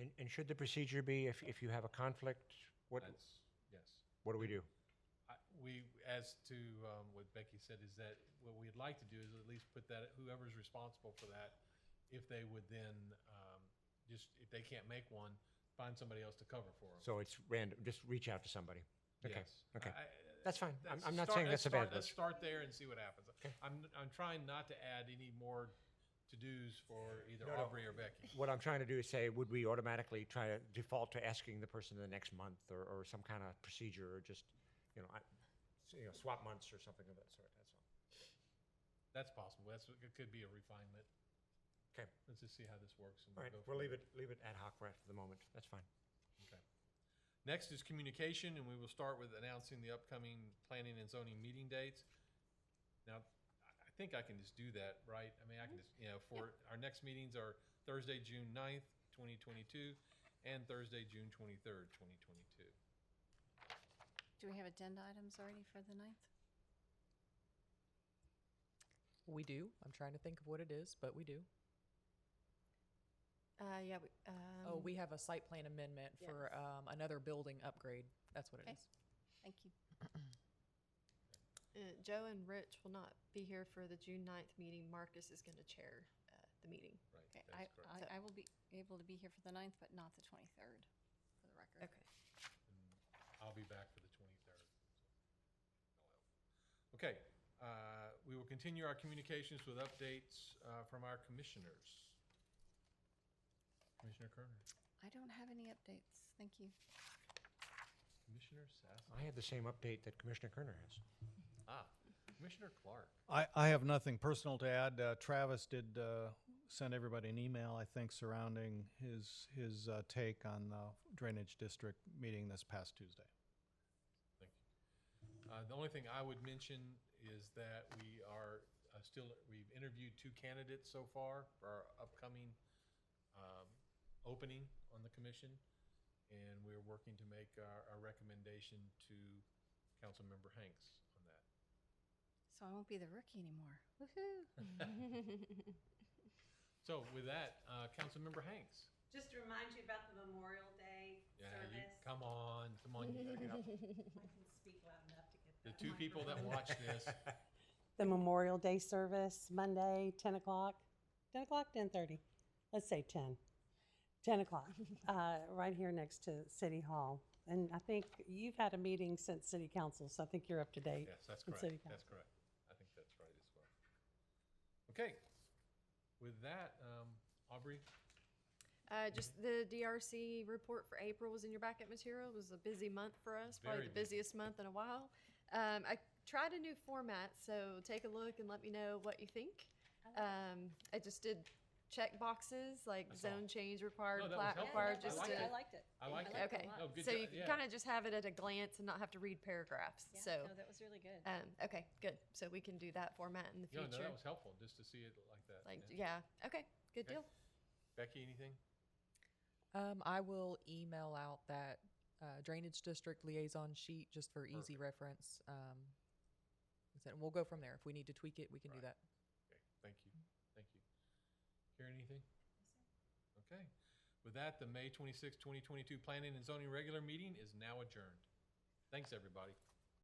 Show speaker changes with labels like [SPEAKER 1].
[SPEAKER 1] And, and should the procedure be if, if you have a conflict, what,
[SPEAKER 2] That's, yes.
[SPEAKER 1] what do we do?
[SPEAKER 2] I- We, as to um, what Becky said, is that what we'd like to do is at least put that, whoever's responsible for that, if they would then, um, just, if they can't make one, find somebody else to cover for them.
[SPEAKER 1] So it's random, just reach out to somebody. Okay,
[SPEAKER 2] Yes.
[SPEAKER 1] okay.
[SPEAKER 2] I- I-
[SPEAKER 1] That's fine. I'm,
[SPEAKER 2] Let's
[SPEAKER 1] I'm not
[SPEAKER 2] start-
[SPEAKER 1] saying
[SPEAKER 2] let's
[SPEAKER 1] that's a
[SPEAKER 2] start-
[SPEAKER 1] bad
[SPEAKER 2] Let's
[SPEAKER 1] list.
[SPEAKER 2] start there and see what happens. I'm, I'm trying not to add any more to-dos for either
[SPEAKER 1] no.
[SPEAKER 2] Aubrey or Becky.
[SPEAKER 1] What I'm trying to do is say, would we automatically try to default to asking the person the next month or, or some kind of procedure or just, you know, I, you know, swap months or something of that sort, that's all.
[SPEAKER 2] That's possible. That's, what- it could be a refinement.
[SPEAKER 1] Okay,
[SPEAKER 2] Let's just see how this works. and
[SPEAKER 1] all right,
[SPEAKER 2] go from
[SPEAKER 1] we'll leave
[SPEAKER 2] there.
[SPEAKER 1] it, leave it ad hoc right for the moment, that's fine.
[SPEAKER 2] Okay. Next is communication, and we will start with announcing the upcoming planning and zoning meeting dates. Now, I- I think I can just do that, right? I mean, I can just, you know, for, our next meetings are Thursday, June 9th, twenty twenty-two, and Thursday, June twenty-third, twenty twenty-two.
[SPEAKER 3] Do we have agenda items already for the ninth?
[SPEAKER 4] We do. I'm trying to think of what it is, but we do.
[SPEAKER 3] Uh, yeah, we, um,
[SPEAKER 4] oh, we have a site plan amendment for
[SPEAKER 3] yes.
[SPEAKER 4] um, another building upgrade. That's what
[SPEAKER 3] Okay.
[SPEAKER 4] it is.
[SPEAKER 3] thank you.
[SPEAKER 5] Uh, Joe and Rich will not be here for the June 9th meeting. Marcus is going to chair uh, the meeting.
[SPEAKER 3] Okay,
[SPEAKER 2] Right,
[SPEAKER 3] I,
[SPEAKER 2] that's correct.
[SPEAKER 3] I, I will be able to be here for the ninth, but not the twenty-third, for the record.
[SPEAKER 2] I'll be back for the twenty-third. Okay, uh, we will continue our communications with updates uh, from our commissioners. Commissioner Kerner,
[SPEAKER 3] I don't have any updates, thank you.
[SPEAKER 2] Commissioner Sass.
[SPEAKER 1] I had the same update that Commissioner Kerner has.
[SPEAKER 2] Ah, Commissioner Clark.
[SPEAKER 6] I, I have nothing personal to add. Uh, Travis did uh, send everybody an email, I think, surrounding his his uh, take on the drainage district meeting this past Tuesday.
[SPEAKER 2] Thank you. Uh, The only thing I would mention is that we are uh, still, we've interviewed two candidates so far for our upcoming um, opening on the commission. And we're working to make our, our recommendation to Councilmember Hanks on that.
[SPEAKER 3] So I won't be the rookie anymore. Woohoo!
[SPEAKER 2] So with that, uh, Councilmember Hanks.
[SPEAKER 7] Just to remind you about the Memorial Day
[SPEAKER 2] Yeah, you,
[SPEAKER 7] service.
[SPEAKER 2] come on, come on, you gotta get up.
[SPEAKER 7] I can speak loud enough to get
[SPEAKER 2] The
[SPEAKER 7] that
[SPEAKER 2] two people that
[SPEAKER 7] microphone.
[SPEAKER 2] watch this,
[SPEAKER 8] the Memorial Day service, Monday, 10 o'clock, 10 o'clock, 10.30, let's say 10, 10 o'clock, uh, right here next to City Hall. And I think you've had a meeting since City Council, so I think you're up to date.
[SPEAKER 2] Yes, that's
[SPEAKER 8] with City
[SPEAKER 2] correct. That's
[SPEAKER 8] Council.
[SPEAKER 2] correct. I think that's right as well. Okay. With that, um, Aubrey,
[SPEAKER 5] Uh, just the DRC report for April was in your backup material. It was a busy month for us,
[SPEAKER 2] Very
[SPEAKER 5] probably the
[SPEAKER 2] busy.
[SPEAKER 5] busiest month in a while. Um, I tried a new format, so take a look and let me know what you think. Um, I just did check boxes like
[SPEAKER 2] I saw.
[SPEAKER 5] zone change required,
[SPEAKER 2] No, that was
[SPEAKER 5] plat
[SPEAKER 2] helpful.
[SPEAKER 5] required,
[SPEAKER 2] I
[SPEAKER 5] just
[SPEAKER 2] liked it.
[SPEAKER 5] to
[SPEAKER 7] I liked it.
[SPEAKER 2] I like it.
[SPEAKER 5] okay.
[SPEAKER 2] Oh, good
[SPEAKER 5] so
[SPEAKER 2] job.
[SPEAKER 5] you
[SPEAKER 2] Yeah.
[SPEAKER 5] can kind of just have it at a glance and not have to read paragraphs.
[SPEAKER 7] Yeah,
[SPEAKER 5] so
[SPEAKER 7] no, that was really good.
[SPEAKER 5] Um, okay, good. So we can do that format in the
[SPEAKER 2] no, no,
[SPEAKER 5] future.
[SPEAKER 2] that was helpful just to see it like that.
[SPEAKER 5] like,
[SPEAKER 2] Yeah.
[SPEAKER 5] yeah. Okay, good
[SPEAKER 2] Okay.
[SPEAKER 5] deal.
[SPEAKER 2] Becky, anything?
[SPEAKER 4] Um, I will email out that uh, drainage district liaison sheet just for easy reference. Um, and we'll go from there. If we need to tweak it, we can do
[SPEAKER 2] Right.
[SPEAKER 4] that.
[SPEAKER 2] Okay, thank you, thank you. Karen, anything? Okay. With that, the May twenty twenty two planning and zoning regular meeting is now adjourned. Thanks, everybody.